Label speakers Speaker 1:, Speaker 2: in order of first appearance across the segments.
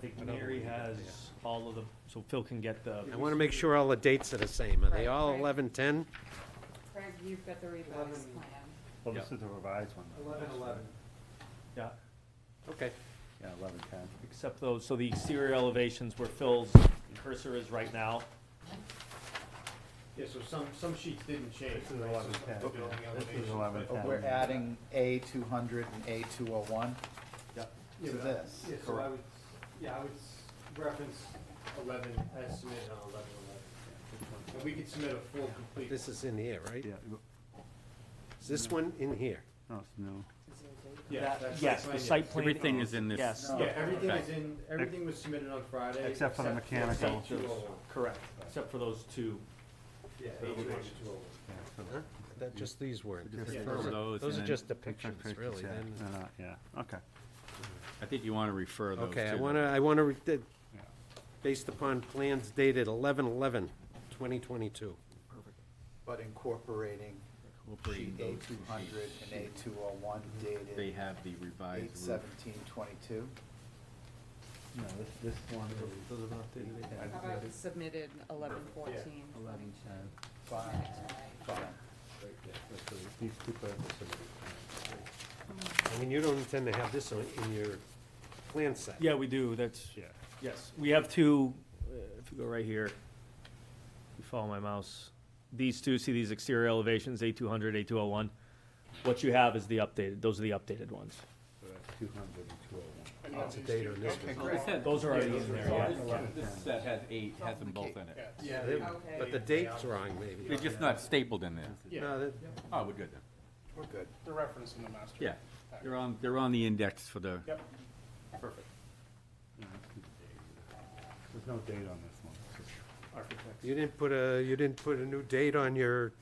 Speaker 1: think Mary has all of the, so Phil can get the.
Speaker 2: I want to make sure all the dates are the same. Are they
Speaker 3: Right,
Speaker 2: all
Speaker 3: right.
Speaker 2: eleven ten?
Speaker 3: Craig, you've got the revised plan.
Speaker 4: Well, this is the revised one. though.
Speaker 5: Eleven, eleven.
Speaker 1: Yeah,
Speaker 2: Okay.
Speaker 4: Yeah, eleven, ten.
Speaker 1: except those, so the exterior elevations where Phil's cursor is right now.
Speaker 5: Yeah, so some, some sheets didn't change.
Speaker 4: This is
Speaker 5: right? So
Speaker 4: eleven,
Speaker 5: some
Speaker 4: ten.
Speaker 5: of the building
Speaker 4: This is
Speaker 5: elevations,
Speaker 4: eleven,
Speaker 5: but-
Speaker 4: ten.
Speaker 6: We're adding A two hundred and A two oh one
Speaker 1: Yep.
Speaker 5: Yeah,
Speaker 6: to
Speaker 5: but I-
Speaker 6: this.
Speaker 5: Yeah, so I would, yeah, I would s- reference eleven, as submitted on eleven, eleven. And we could submit a full complete.
Speaker 2: This is in here, right?
Speaker 4: Yeah,
Speaker 2: Is this one in here?
Speaker 4: no, it's new.
Speaker 5: Yeah,
Speaker 1: That-
Speaker 5: that's-
Speaker 1: Yes,
Speaker 5: that's
Speaker 1: the
Speaker 5: fine, yeah.
Speaker 1: site plan.
Speaker 7: Everything is in this.
Speaker 1: Yes,
Speaker 6: No.
Speaker 5: Yeah, everything
Speaker 7: Okay.
Speaker 5: is in, everything was submitted on Friday.
Speaker 4: Except for the mechanical.
Speaker 5: Two oh one,
Speaker 1: correct, except for those two.
Speaker 5: yeah, eight two one, two oh one.
Speaker 4: Yeah, so
Speaker 2: Huh? That, just these weren't.
Speaker 4: Just
Speaker 2: Those
Speaker 5: Yeah.
Speaker 2: are-
Speaker 7: those
Speaker 2: Those
Speaker 7: and
Speaker 2: are
Speaker 7: then
Speaker 2: just
Speaker 4: picture
Speaker 2: depictions,
Speaker 4: pictures,
Speaker 2: really.
Speaker 4: yeah,
Speaker 2: then-
Speaker 4: they're not- Yeah, okay.
Speaker 7: I think you want to refer those to.
Speaker 2: Okay, I
Speaker 7: the-
Speaker 2: want to, I want to, based upon plans dated eleven eleven twenty twenty-two.
Speaker 6: But incorporating sheet
Speaker 7: incorporating
Speaker 6: A
Speaker 7: those
Speaker 6: two hundred and A two oh one
Speaker 7: They
Speaker 6: dated
Speaker 7: have the revised
Speaker 6: eight
Speaker 7: roof.
Speaker 6: seventeen twenty-two.
Speaker 4: No, this, this one.
Speaker 3: How about we submitted eleven fourteen?
Speaker 4: Eleven, ten.
Speaker 6: Fine, fine.
Speaker 4: These two purposes.
Speaker 2: I mean, you don't intend to have this on, in your plan set.
Speaker 1: Yeah, we do, that's,
Speaker 4: Yeah.
Speaker 1: yes, we have two, uh, if you go right here, you follow my mouse. These two, see these exterior elevations, A two hundred, A two oh one? What you have is the updated, those are the updated ones.
Speaker 4: Two hundred and two oh
Speaker 5: And
Speaker 2: Up to
Speaker 5: that's-
Speaker 2: date on this one.
Speaker 7: This had-
Speaker 1: Those are already in there, yeah.
Speaker 7: This set has eight, has them both in
Speaker 5: Yeah,
Speaker 7: it.
Speaker 5: yeah,
Speaker 2: They-
Speaker 3: Okay.
Speaker 2: But the date's wrong,
Speaker 7: They're
Speaker 2: maybe.
Speaker 7: just not stapled in there.
Speaker 5: Yeah,
Speaker 2: No, that-
Speaker 7: Oh, we're good then.
Speaker 6: We're good.
Speaker 5: the reference in the master.
Speaker 7: Yeah, they're on, they're on the index for the,
Speaker 5: Yep, perfect.
Speaker 4: one. There's no date on this one.
Speaker 2: You didn't put a, you didn't put a new date on your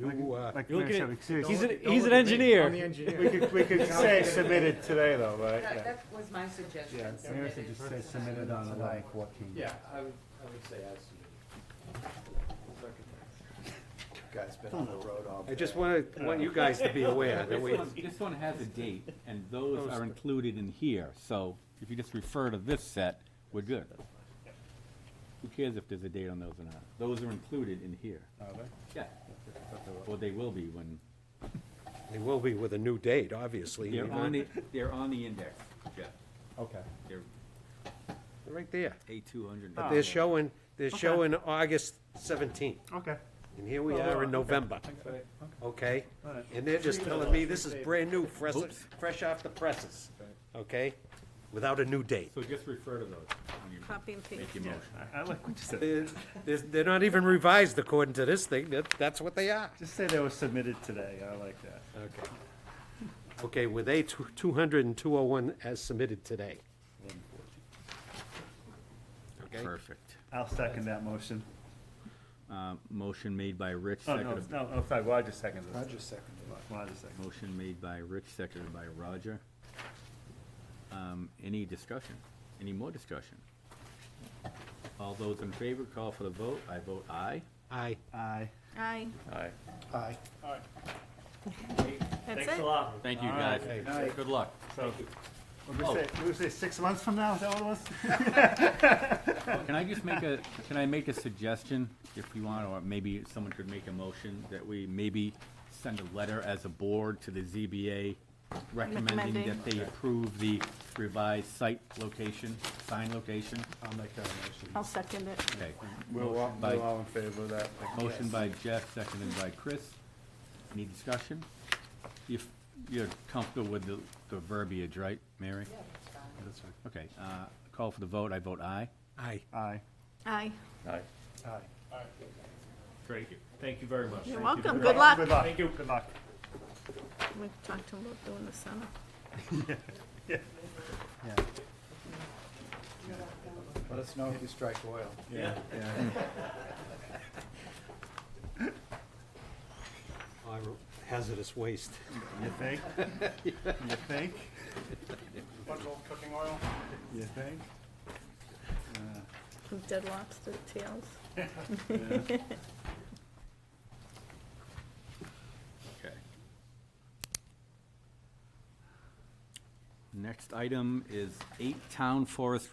Speaker 2: new, uh,
Speaker 4: Like
Speaker 1: You're
Speaker 4: Mary
Speaker 1: looking
Speaker 4: said,
Speaker 1: at-
Speaker 4: seriously,
Speaker 1: He's an, he's an engineer.
Speaker 5: I'm the engineer.
Speaker 4: We could, we could say submitted today though, right?
Speaker 3: That, that was my suggestion.
Speaker 4: Yeah, Mary said just say submitted on eleven fourteen.
Speaker 5: Yeah, I would, I would say as submitted.
Speaker 6: Guys been on the road all day.
Speaker 2: I just want to, want you guys to be aware that
Speaker 7: this
Speaker 2: we,
Speaker 7: one, this one has a date, and those are included in here, so if you just refer to this set, we're good. Who cares if there's a date on those or not? Those are included in here. Yeah, well, they will be when,
Speaker 2: they will be with a new date, obviously. We
Speaker 7: they're
Speaker 2: don't-
Speaker 7: on the, they're on the index, Jeff.
Speaker 4: Okay.
Speaker 7: They're
Speaker 2: Right there.
Speaker 7: A two hundred.
Speaker 2: But they're showing, they're showing August seventeenth,
Speaker 4: Okay.
Speaker 2: and here we are in November, okay?
Speaker 4: Alright.
Speaker 2: And they're just telling me this is brand new, fresh, fresh off the presses, okay? Without a new date.
Speaker 7: So just refer to those when you
Speaker 8: Copy and paste.
Speaker 7: make your motion.
Speaker 4: I like what you said.
Speaker 2: They're, they're- they're not even revised according to this thing, that, that's what they are.
Speaker 4: Just say they were submitted today, I like that.
Speaker 2: Okay. Okay, with A two two hundred and two oh one as submitted today. Okay.
Speaker 7: Perfect.
Speaker 4: I'll second that motion.
Speaker 7: Uh, motion made by Rich,
Speaker 4: Oh, no,
Speaker 7: seconded,
Speaker 4: no, no, sorry, Roger seconded
Speaker 6: I
Speaker 4: it.
Speaker 6: just seconded it.
Speaker 4: Roger seconded
Speaker 7: motion made by Rich, seconded by Roger. Um, any discussion? Any more discussion? All those in favor, call for the vote. I vote aye.
Speaker 2: Aye.
Speaker 4: it. Aye.
Speaker 8: Aye.
Speaker 6: Aye.
Speaker 8: That's
Speaker 1: Thanks a
Speaker 8: it.
Speaker 1: lot.
Speaker 7: Thank you,
Speaker 4: All
Speaker 7: guys.
Speaker 4: right.
Speaker 2: Good
Speaker 4: night.
Speaker 7: Good luck.
Speaker 4: So, we'll
Speaker 7: Oh.
Speaker 4: just say, we'll say six months from now, is that what it was?
Speaker 7: Can I just make a, can I make a suggestion, if you want, or maybe someone could make a motion, that we maybe send a letter as a board to the ZBA recommending
Speaker 8: Recommending.
Speaker 7: that they approve the revised site location, sign location?
Speaker 4: I'll make that motion.
Speaker 8: I'll second it.
Speaker 7: Okay.
Speaker 4: We're all,
Speaker 7: Bye.
Speaker 4: we're all in favor of that.
Speaker 7: Motion by Jeff, seconded by Chris. Any discussion? If you're comfortable with the, the verbiage, right, Mary? Okay, uh, call for the vote, I vote aye.
Speaker 2: Aye.
Speaker 4: Aye.
Speaker 8: Aye.
Speaker 6: Aye.
Speaker 1: Great, thank you very much. Thank
Speaker 8: You're
Speaker 1: you
Speaker 8: welcome.
Speaker 1: very
Speaker 8: Good
Speaker 1: much.
Speaker 8: luck.
Speaker 4: Good luck.
Speaker 1: Thank you.
Speaker 4: Good luck.
Speaker 8: We talked to him about doing the summer.
Speaker 4: Yeah,
Speaker 6: Let us know if you strike oil.
Speaker 4: yeah, yeah.
Speaker 2: Hazardous waste.
Speaker 4: You think? You think?
Speaker 5: Bunch of old cooking oil.
Speaker 4: You think? Uh,
Speaker 8: From Dead lobster tails.
Speaker 7: Okay. Next item is eight town forest